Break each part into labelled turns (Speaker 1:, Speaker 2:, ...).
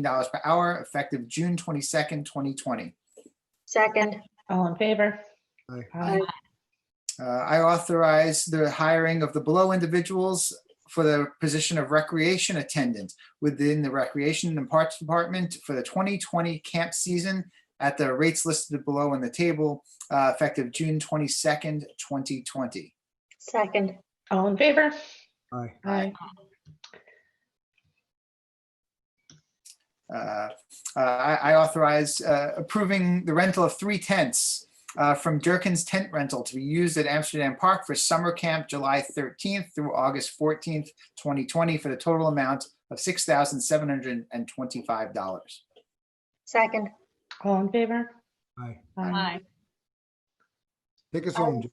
Speaker 1: dollars per hour effective June twenty-second, twenty twenty.
Speaker 2: Second,
Speaker 3: All in favor?
Speaker 4: Aye.
Speaker 3: Aye.
Speaker 1: Uh, I authorize the hiring of the below individuals for the position of recreation attendant within the Recreation and Parks Department for the 2020 camp season at the rates listed below in the table, uh, effective June 22nd, 2020.
Speaker 2: second,
Speaker 3: All in favor?
Speaker 4: Aye.
Speaker 3: Aye.
Speaker 1: Uh, uh, I I authorize uh, approving the rental of three tents uh, from Durkin's Tent Rental to be used at Amsterdam Park for summer camp July 13th through August 14th, 2020, for the total amount of $6,725.
Speaker 2: second,
Speaker 3: All in favor?
Speaker 4: Aye.
Speaker 3: Aye.
Speaker 4: Take us home. Jim.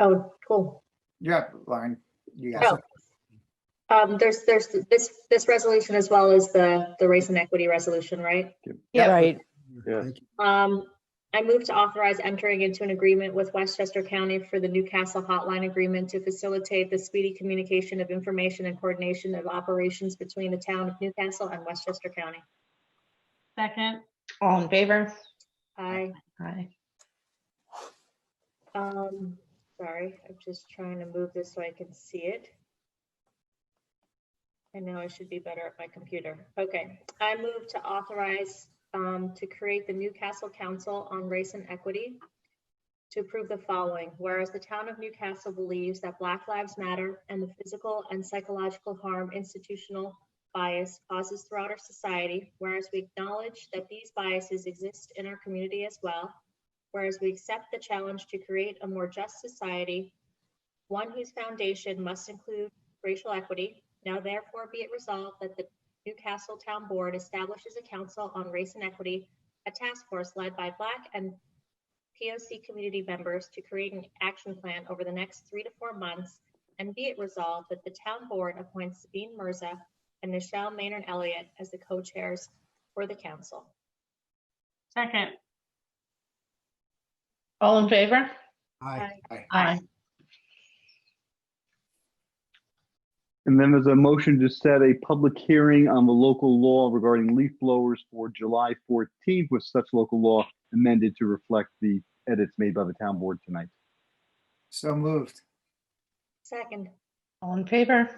Speaker 2: oh, cool.
Speaker 1: You're up, Lauren. You got
Speaker 2: No.
Speaker 1: something?
Speaker 2: Um, there's, there's, this, this resolution as well as the, the race and equity resolution, right?
Speaker 3: Yep.
Speaker 5: Right,
Speaker 6: Yeah.
Speaker 4: Thank you.
Speaker 2: Um, I move to authorize entering into an agreement with Westchester County for the Newcastle Hotline Agreement to facilitate the speedy communication of information and coordination of operations between the town of Newcastle and Westchester County.
Speaker 7: Second,
Speaker 3: All in favor?
Speaker 2: I,
Speaker 3: Aye.
Speaker 2: um, sorry, I'm just trying to move this so I can see it. I know I should be better at my computer. Okay, I move to authorize um, to create the Newcastle Council on Race and Equity to approve the following, whereas the town of Newcastle believes that Black Lives Matter and the physical and psychological harm institutional bias causes throughout our society, whereas we acknowledge that these biases exist in our community as well, whereas we accept the challenge to create a more just society, one whose foundation must include racial equity. Now therefore be it resolved that the Newcastle Town Board establishes a council on race and equity, a task force led by Black and POC community members to create an action plan over the next three to four months. And be it resolved that the town board appoints Sabine Mirza and Nichelle Maynard Elliott as the co-chairs for the council.
Speaker 7: second,
Speaker 3: All in favor?
Speaker 4: Aye.
Speaker 3: Aye.
Speaker 6: And then there's a motion to set a public hearing on the local law regarding leaf blowers for July 14th with such local law amended to reflect the edits made by the town board tonight.
Speaker 1: So moved.
Speaker 2: Second,
Speaker 3: All in favor?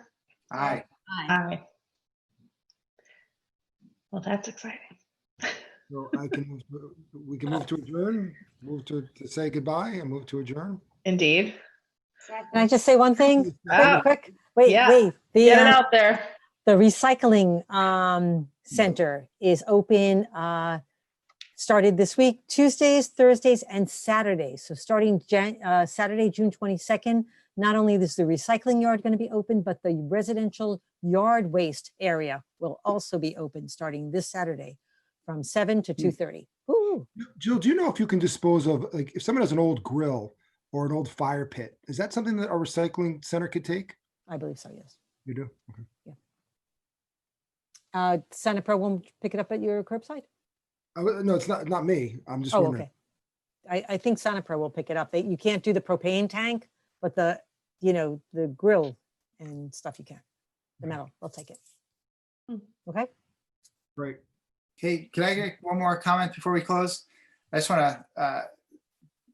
Speaker 1: Aye.
Speaker 7: aye,
Speaker 3: Aye. Well, that's exciting.
Speaker 4: So I can, move to- we can move to adjourn, move to, to say goodbye and move to adjourn.
Speaker 3: Indeed.
Speaker 2: second.
Speaker 5: can I just say one thing?
Speaker 3: Oh,
Speaker 5: Quick, wait,
Speaker 3: yeah.
Speaker 5: wait. The,
Speaker 3: Get it
Speaker 5: uh,
Speaker 3: out there.
Speaker 5: the recycling, um, center is open, uh, started this week, Tuesdays, Thursdays, and Saturdays. So starting Jan, uh, Saturday, June twenty-second, not only is the recycling yard going to be open, but the residential yard waste area will also be open starting this Saturday from seven to
Speaker 3: Hmm.
Speaker 5: two thirty. Ooh,
Speaker 4: Jill, do you know if you can dispose of, like, if someone has an old grill or an old fire pit, is that something that our recycling center could take?
Speaker 5: I believe so, yes.
Speaker 4: You do? Okay.
Speaker 5: Uh, Santa Pro won't pick it up at your curbside?
Speaker 4: I w- No, it's not, not me. I'm just
Speaker 5: Oh,
Speaker 4: wondering.
Speaker 5: okay. I, I think Sonipro will pick it up. They, you can't do the propane tank, but the, you know, the grill and stuff you can. The metal, they'll take it.
Speaker 3: Hmm.
Speaker 5: Okay?
Speaker 4: Right.
Speaker 1: Hey, can I get one more comment before we close? I just want to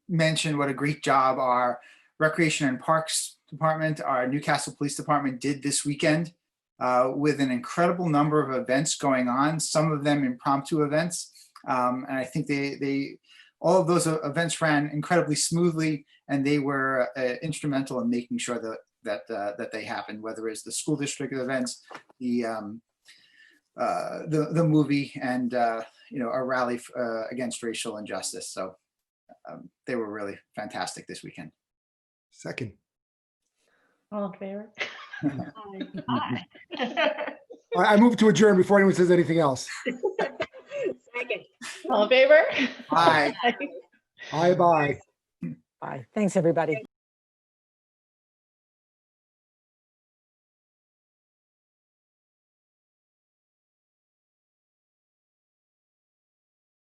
Speaker 1: mention what a great job our Recreation and Parks Department, our Newcastle Police Department did this weekend uh, with an incredible number of events going on, some of them impromptu events. Um, And I think they, they, all of those uh, events ran incredibly smoothly and they were uh, instrumental in making sure that, that, uh, that they happened, whether it's the school district events, the, um, uh, the the movie and uh, you know a rally f- uh, against racial injustice. So um, they were really fantastic this weekend.
Speaker 4: Second.
Speaker 3: All in favor?
Speaker 2: Aye.
Speaker 7: aye.
Speaker 4: I, I move to adjourn before anyone says anything else.
Speaker 2: Second.
Speaker 3: All in favor?
Speaker 1: Bye.
Speaker 4: Aye, bye.
Speaker 5: Bye. Thanks, everybody.